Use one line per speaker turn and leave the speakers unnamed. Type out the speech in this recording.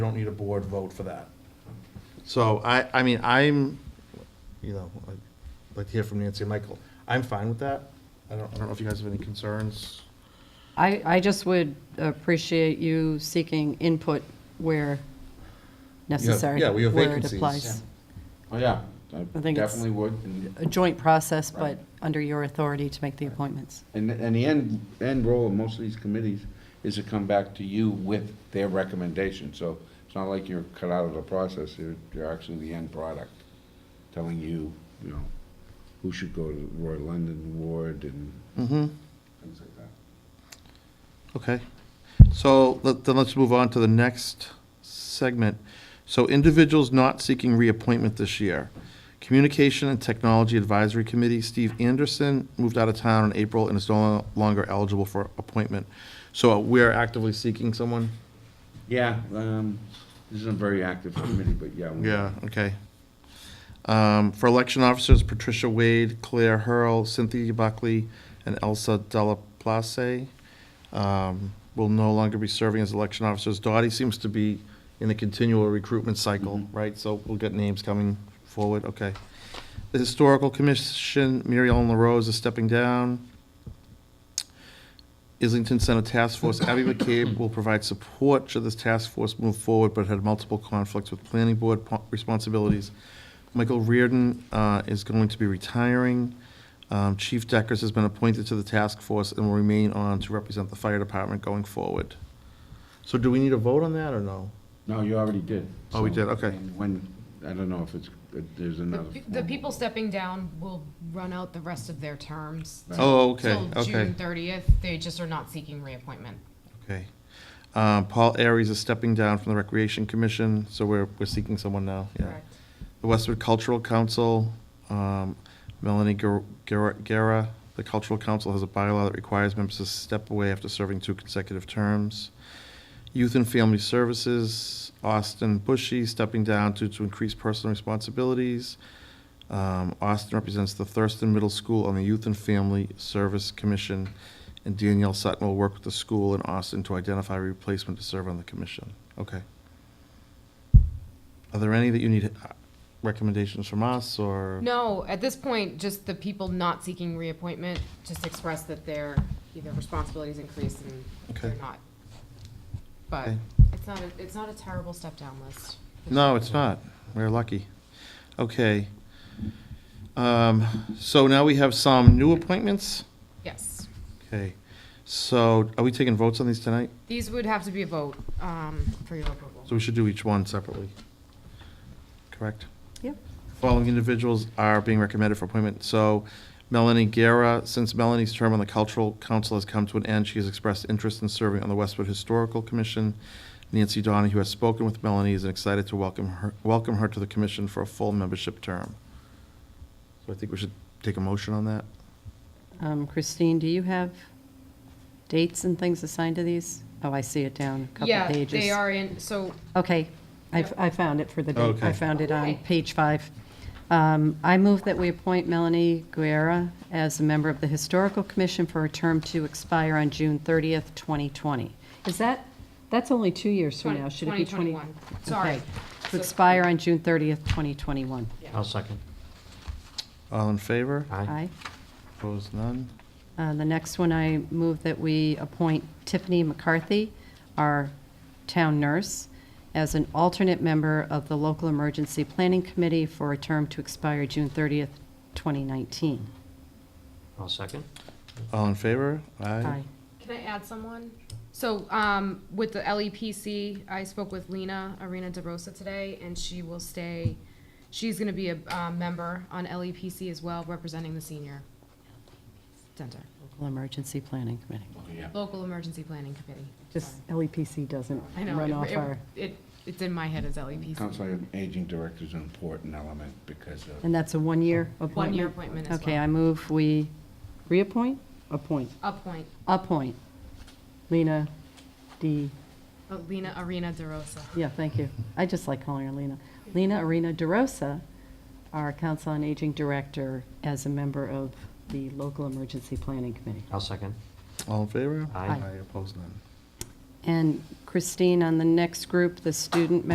don't need a board vote for that.
So I, I mean, I'm, you know, I'd like to hear from Nancy and Michael. I'm fine with that. I don't, I don't know if you guys have any concerns.
I, I just would appreciate you seeking input where necessary.
yeah, we have
where it
vacancies.
applies.
Oh, yeah, I
I think it's-
definitely would. And-
A joint process, but
Right.
under your authority to make the appointments.
And, and the end, end role of most of these committees is to come back to you with their recommendation. So it's not like you're cut out of the process, you're, you're actually the end product, telling you, you know, who should go to Roy London Ward and
Mm-hmm.
things like that.
Okay. So let- then let's move on to the next segment. So individuals not seeking reappointment this year. Communication and Technology Advisory Committee, Steve Anderson moved out of town in April and is no longer eligible for appointment. So we're actively seeking someone?
Yeah, um, this isn't a very active committee, but yeah. we-
Yeah, okay. Um, For election officers, Patricia Wade, Claire Hurl, Cynthia Buckley, and Elsa Della Place um, will no longer be serving as election officers. Dottie seems to be in a continual recruitment cycle, right? So we'll get names coming forward, okay. The Historical Commission, Mary Ellen LaRose is stepping down. Islington Center Task Force, Abby McCabe will provide support should this task force move forward, but had multiple conflicts with planning board po- responsibilities. Michael Reardon uh, is going to be retiring. Um, Chief Deckers has been appointed to the task force and will remain on to represent the fire department going forward. So do we need a vote on that or no?
No, you already did.
Oh, we
so-
did, okay.
and When, I don't know if it's, if there's another.
The- The
formal-
people stepping down will run out the rest of their terms.
Right.
Oh, okay,
Till June
okay.
thirtieth, they just are not seeking reappointment.
Okay. Um, Paul Aries is stepping down from the Recreation Commission, so we're, we're seeking someone now, yeah.
Correct.
The Westwood Cultural Council, um, Melanie Ger- Ger- Guerra, the Cultural Council has a bylaw that requires members to step away after serving two consecutive terms. Youth and Family Services, Austin Bushy stepping down due to increased personal responsibilities. Um, Austin represents the Thurston Middle School on the Youth and Family Service Commission, and Danielle Sutton will work with the school in Austin to identify a replacement to serve on the commission. Okay. Are there any that you need uh, recommendations from us, or?
No, at this point, just the people not seeking reappointment, just express that their, their responsibilities increase and they're
Okay.
not. But
Okay.
it's not, a- it's not a terrible step down list.
No, it's not. We're lucky. Okay. Um, So now we have some new appointments.
Yes.
Okay. So are we taking votes on these tonight?
These would have to be a vote, um, for your approval.
So we should do each one separately. Correct?
Yep.
Following individuals are being recommended for appointment. So Melanie Guerra, since Melanie's term on the Cultural Council has come to an end, she has expressed interest in serving on the Westwood Historical Commission. Nancy Donahue has spoken with Melanie, is excited to welcome her, welcome her to the commission for a full membership term. So I think we should take a motion on that.
Um, Christine, do you have dates and things assigned to these? Oh, I see it down a couple
Yeah,
pages.
they are in, so
Okay, I, I found it for the date.
Okay.
I found it on
Okay.
page five. Um, I move that we appoint Melanie Guerra as a member of the Historical Commission for a term to expire on June 30th, 2020. Is that, that's only two years from now, should it be 20?
2021. Sorry.
Okay. To expire on June 30th, 2021.
I'll second.
All in favor?
Aye.
Opposed, none?
Uh, The next one, I move that we appoint Tiffany McCarthy, our town nurse, as an alternate member of the Local Emergency Planning Committee for a term to expire June 30th, 2019.
I'll second.
All in favor? Aye.
Can I add someone? So, um, with the LEPC, I spoke with Lena Arena DeRosa today, and she will stay, she's gonna be a, um, member on LEPC as well, representing the senior center,
Local Emergency Planning Committee.
Oh, Yeah.
local emergency planning committee.
Just LEPC doesn't
I know,
run
it-
off
it-
our,
It, it's in my head as E LEPC.
Council on Aging Director is an important element because of
and that's a one-year appointment?
One-year appointment as
Okay,
well.
I move we reappoint, appoint,
Appoint
appoint Lena D.
uh, Lena Arena DeRosa.
Yeah, thank you. I just like calling her Lena. Lena Arena DeRosa, our Council on Aging Director, as a member of the Local Emergency Planning Committee.
I'll second.
All in favor?
Aye.
Aye, opposed, none?
And Christine, on the next group, the student